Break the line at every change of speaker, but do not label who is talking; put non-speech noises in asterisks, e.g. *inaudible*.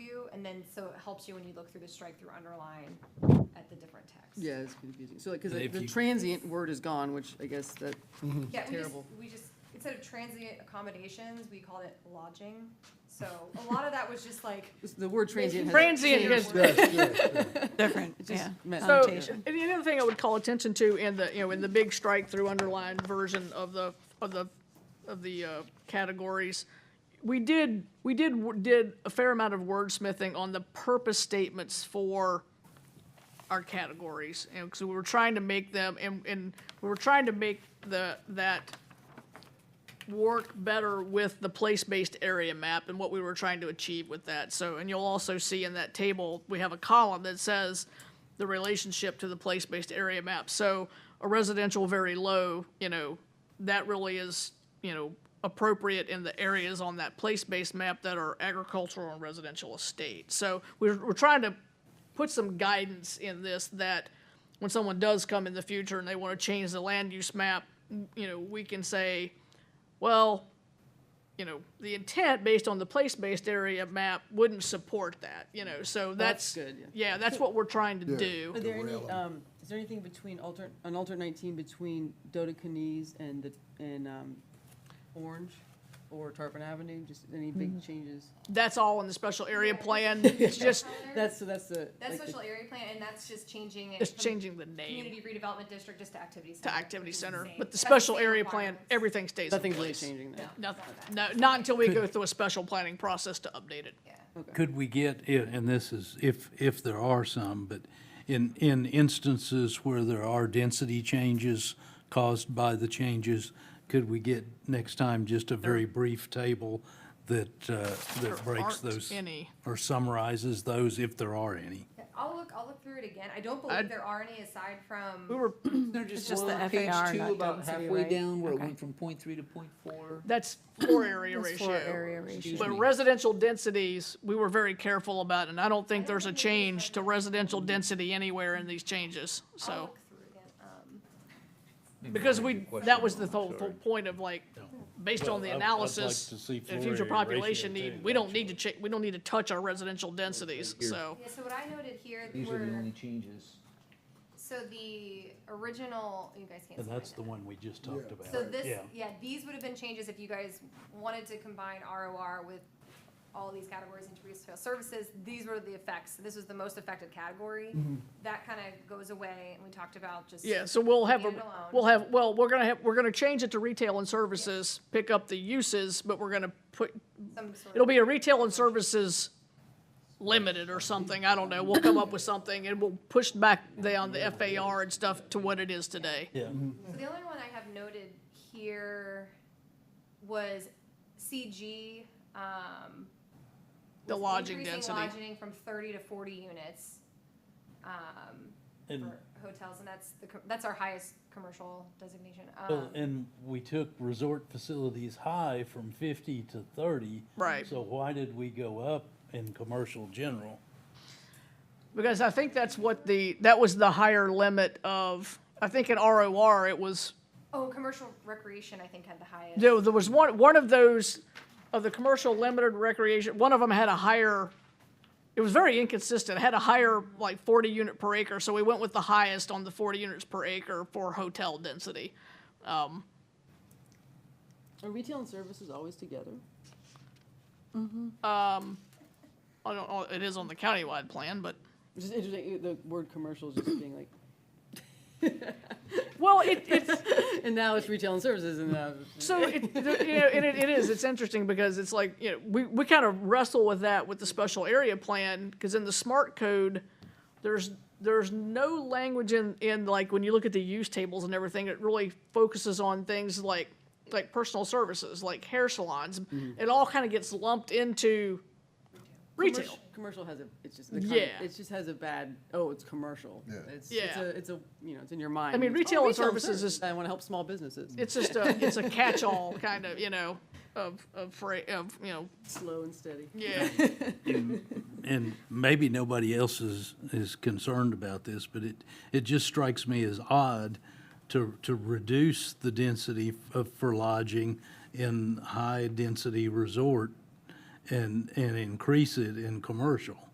and then, so it helps you when you look through the strike-through underline at the different text.
Yeah, it's confusing. So like, because
But if
the
you-
transient word is gone, which I guess that,
Yeah, we just,
Terrible.
we just, instead of transient accommodations, we called it lodging. So a lot of that was just like,
the word *laughs* transient has.
Transient
changed.
is
Yes, yes, yes.
different,
Just
yeah.
meant-
So,
Connotation.
and the other thing I would call attention to in the, you know, in the big strike through underlined version of the, of the, of the, uh, categories, we did, we did, w- did a fair amount of wordsmithing on the purpose statements for our categories, and so we were trying to make them, and, and we were trying to make the, that work better with the place-based area map and what we were trying to achieve with that. So, and you'll also see in that table, we have a column that says the relationship to the place-based area map. So a residential very low, you know, that really is, you know, appropriate in the areas on that place-based map that are agricultural and residential estate. So we're, we're trying to put some guidance in this that when someone does come in the future and they want to change the land use map, you know, we can say, well, you know, the intent based on the place-based area map wouldn't support that, you know, so that's.
That's good, yeah.
that's what we're trying to
Yeah.
do.
Are there any,
Derail 'em.
um, is there anything between alter, on alter nineteen between Dodecanese and the, and, um, Orange or Tarpon Avenue? Just any big changes?
That's all in the special
*laughs*
area plan, *laughs* it's just,
That's, so that's the.
that's
like the-
social area plan, and that's just changing it
it's
from
changing the name
community redevelopment district just to activity center.
to
which
activity
is
center,
same.
but the
That's
special
same
area plan,
requirements.
everything stays in
Nothing's really
place.
changing there.
No,
Nothing,
it's
no,
not that.
not until we go through a special planning process to update it.
Yeah.
Could we get, i- and this is if, if there are some, but in, in instances where there are density changes caused by the changes, could we get next time just a very brief table that, uh,
There
that breaks
aren't
those?
any.
Or summarizes those if there are any?
Yeah, I'll look, I'll look through it again. I don't
I'd-
believe there are any aside from.
We were,
They're just
just
one
the
on page
FAR,
two,
not
about
density,
halfway
right?
down, where it
Okay.
went from point three to point four.
*clears throat*
that's floor area
That's
ratio.
floor area ratio.
Excuse
But
me.
residential densities, we were very careful about, and I don't think there's a change to residential density anywhere in these changes,
I'll
so.
Oh.
look through again. Um,
Hmm.
Because we, that was the whole, whole point of like, based on the
Well, I'd- I'd like to
analysis,
see
the
floor
future
area
population
ratio
need,
too,
we don't need to check, we don't need to touch our residential densities,
Here.
so.
Yeah, so what I noted here
These are the
were,
only changes.
so the original, you guys can't.
And
see mine
that's the
now.
one we just
Yeah.
talked about.
So this,
Yeah.
yeah, these would have been changes if you guys wanted to combine ROR with all these categories into retail services. These were the effects. This was the most affected category. That kind of goes away and we talked about just.
Yeah, so we'll have, a
Leave it alone.
we'll have, well, we're gonna have, we're gonna change it to retail and services, pick up the uses, but we're gonna put,
Some sort
It'll
of,
be a retail and services limited or something, I don't know, we'll come up with something and we'll push back down the FAR and stuff to what it is today.
So the only one I have noted here was CG, um.
The
was
lodging
increasing
density.
Lodging from thirty to forty units, um,
And
for hotels and that's the, co- that's our highest commercial designation.
Well,
Um,
and we took resort facilities high from fifty to thirty.
Right.
So why did we go up in commercial general?
Because I think that's what the, that was the higher limit of, I think in ROR, it was,
Oh, commercial recreation, I think, had the highest.
there, there was one, one of those, of the commercial limited recreation, one of them had a higher, it was very inconsistent, it had a higher, like, forty unit per acre, so we went with the highest on the forty units per acre for hotel density.
Are retail and services always together?
I don't know, it is on the countywide plan, but.
It's just interesting, the word commercial is just being like,
Well, it, it's,
*laughs* and now it's retail and services and now. it's-
so, it, you know, and it, it is, it's interesting because it's like, you know, we, we kind of wrestle with that with the special area plan, because in the smart code, there's, there's no language in, in like, when you look at the use tables and everything, it really focuses on things like, like personal services, like hair salons. It all kind of gets lumped into retail.
Commercial- Commercial has a, it's just, the kind of-
Yeah.
it just has a bad, oh, it's commercial.
Yeah.
It's, it's
Yeah.
a, it's a, you know, it's in your mind.
mean,
It's, oh,
retail and services is-
I want to help small businesses.
It's just a, it's a catch-all kind of, you know, of, of, fra- of, you know,
Slow and steady.
yeah.
And maybe nobody else is, is concerned about this, but it, it just strikes me as odd to, to reduce the density of, for lodging in high-density resort and, and increase it in commercial.